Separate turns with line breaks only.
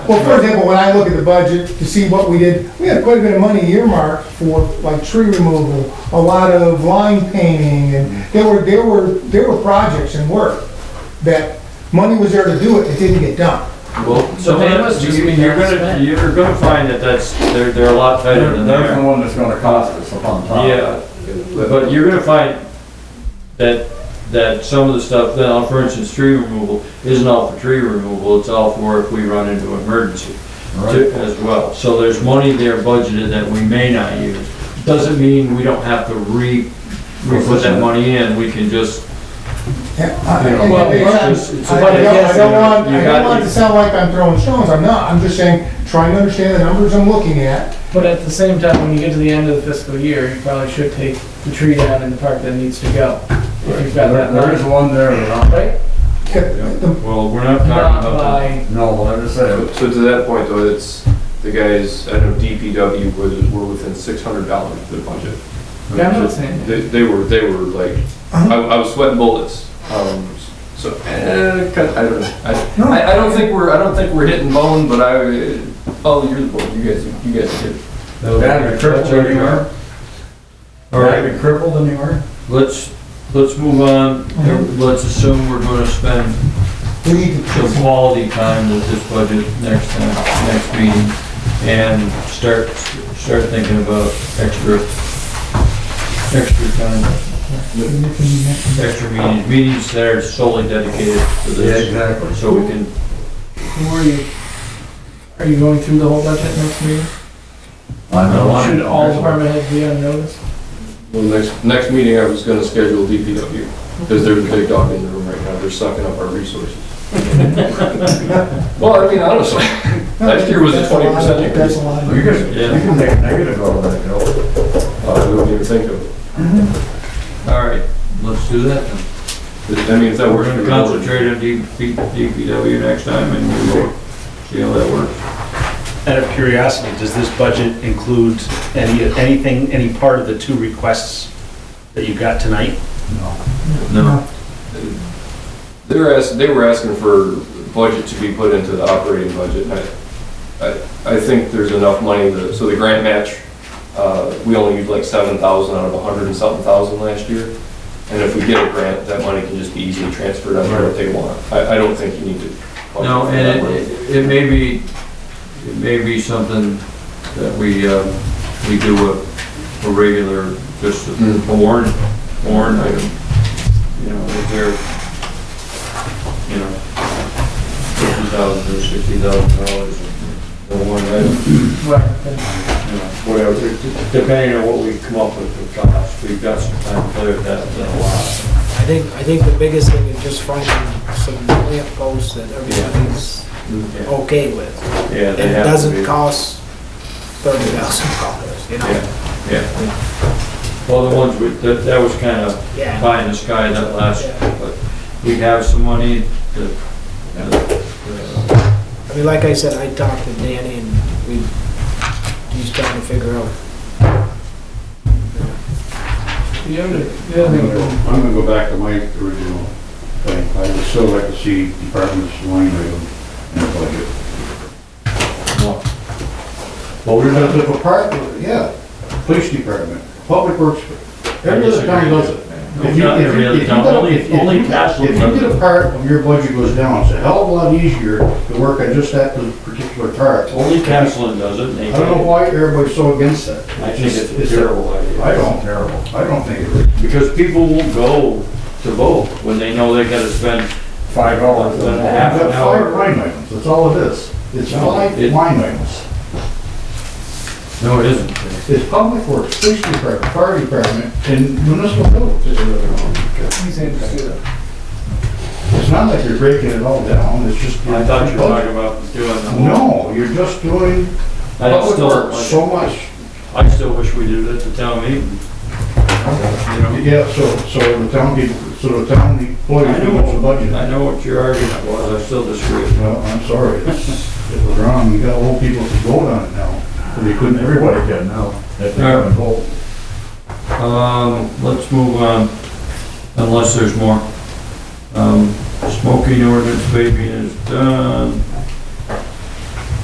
Well, for example, when I look at the budget to see what we did, we had quite a bit of money earmarked for like tree removal, a lot of line painting, and there were, there were, there were projects and work that money was there to do it, it didn't get done.
Well,
So
some of
that
that-
must just
you-
mean
You're
that's
gonna,
spent.
you're gonna find that that's, they're, they're a lot better than
That's the
there.
one that's gonna cost us upon top.
Yeah, but you're gonna find that, that some of the stuff, now, for instance, tree removal, isn't all for tree removal, it's all for if we run into an emergency
Right.
to- as well. So there's money there budgeted that we may not use. Doesn't mean we don't have to re, re-put that money in, we can just,
Yeah, I-
Yeah,
I-
well,
I-
it's just- it's
I
about
don't- I
guessing.
don't want,
You
I
got-
don't want it to sound like I'm throwing stones, I'm not, I'm just saying, trying to understand the numbers I'm looking at.
But at the same time, when you get to the end of the fiscal year, you probably should take the tree down in the park that needs to go. If you've got
There
that
there is
money,
one there that
right?
The-
well, we're not talking
Not
about
by,
I'm, no, let us say,
So to that point though, it's, the guys, I know DPW was, were within six hundred dollars of their budget.
Yeah, I'm not saying that.
They, they were, they were like, I, I was sweating bullets, um, so, eh, cut- I don't know. I- I, I don't think we're, I don't think we're hitting bone, but I, oh, you're the board, you guys, you guys did.
that.
that'd be crippled anywhere,
All right,
that'd be crippled anywhere.
let's, let's move on, let's assume we're gonna spend
We need to,
some quality time with this budget next time, next meeting, and start, start thinking about extra, extra time, extra meetings, meetings that are solely dedicated to
Yeah,
this,
exactly.
so we can,
who are you? Are you going through the whole budget next meeting?
I know.
Should all department heads be on notice?
Well, next, next meeting, I was gonna schedule DPW, because they're the big dog in the room right now, they're sucking up our resources. Well, I mean, honestly, last year was a
That's lot of-
20% increase.
That's a lot of.
You can, you
Yeah.
can make a negative out of that, Joe.
I wouldn't even think of it.
all right, let's do that then.
I mean, if that
We're
works
gonna
for the
concentrate on DP DPW next time and we'll see how that works.
Out of curiosity, does this budget include any, anything, any part of the two requests that you got tonight?
No,
They were ask they were asking for budget to be put into the operating budget, and I, I, I think there's enough money, to- so the grant match, uh, we only used like seven thousand out of a hundred and something thousand last year. And if we get a grant, that money can just be easily transferred out there if they want. I, I don't think you need to. budget
no,
for that
and
money.
it, it may be, it may be something that we, uh, we do a, a regular, just
Mm.
a warrant, warrant item. You know, if they're, you know, fifty thousand or sixty thousand dollars, the warrant item,
Right.
you know, whatever, depending on what we come up with for cost, we've got some time to play with that, then a lot.
I think, I think the biggest thing is just finding some lamp posts that everybody's
Yeah,
okay with.
Yeah, they
And it
have to be.
doesn't cost thirty thousand dollars, you know?
Yeah. Well, the ones, we that, that was kind of
Yeah.
pie in the sky that last, but we have some money to.
I mean, like I said, I talked to Danny and we, he's trying to figure out.
The other, the other
I'm
thing,
gonna- I'm gonna go back to my original thing. I would still like to see departments line item in the budget.
Well, we're
Because
gonna,
if a part, yeah, police department, public works, every other county does it. If you-
not
if
every
you-
other
if you
town,
get a-
only-
if you
only
get a-
Castle
If
does
you get
it.
a part of your budget goes down, it's a hell of a lot easier to work on just that particular part.
only Castleton does it, and they
I don't know
take it.
why everybody's so against that.
I think it's a
It's-
terrible
I
idea.
don't, terrible. I don't think it is.
Because people will go to vote when they know they gotta spend,
Five dollars.
Then a half
I've
an
got
hour.
five line items, that's all it is. It's five
it-
line items.
No, it isn't.
It's public works, police department, fire department, and municipal buildings.
he's interested.
It's not like you're breaking it all down, it's just.
I thought you were talking about doing the whole.
No, you're just doing
I still,
so much.
I still wish we did it at the town meeting. You know?
Yeah, so, so the town, people- so the town employees do what's the budget.
I know what your argument was, I still disagree.
Well, I'm sorry, it's- it was wrong, you got old people to vote on it now, but they couldn't, everybody can now. If they haven't voted.
Um, let's move on, unless there's more. Um, smoking ordinance, vaping is done.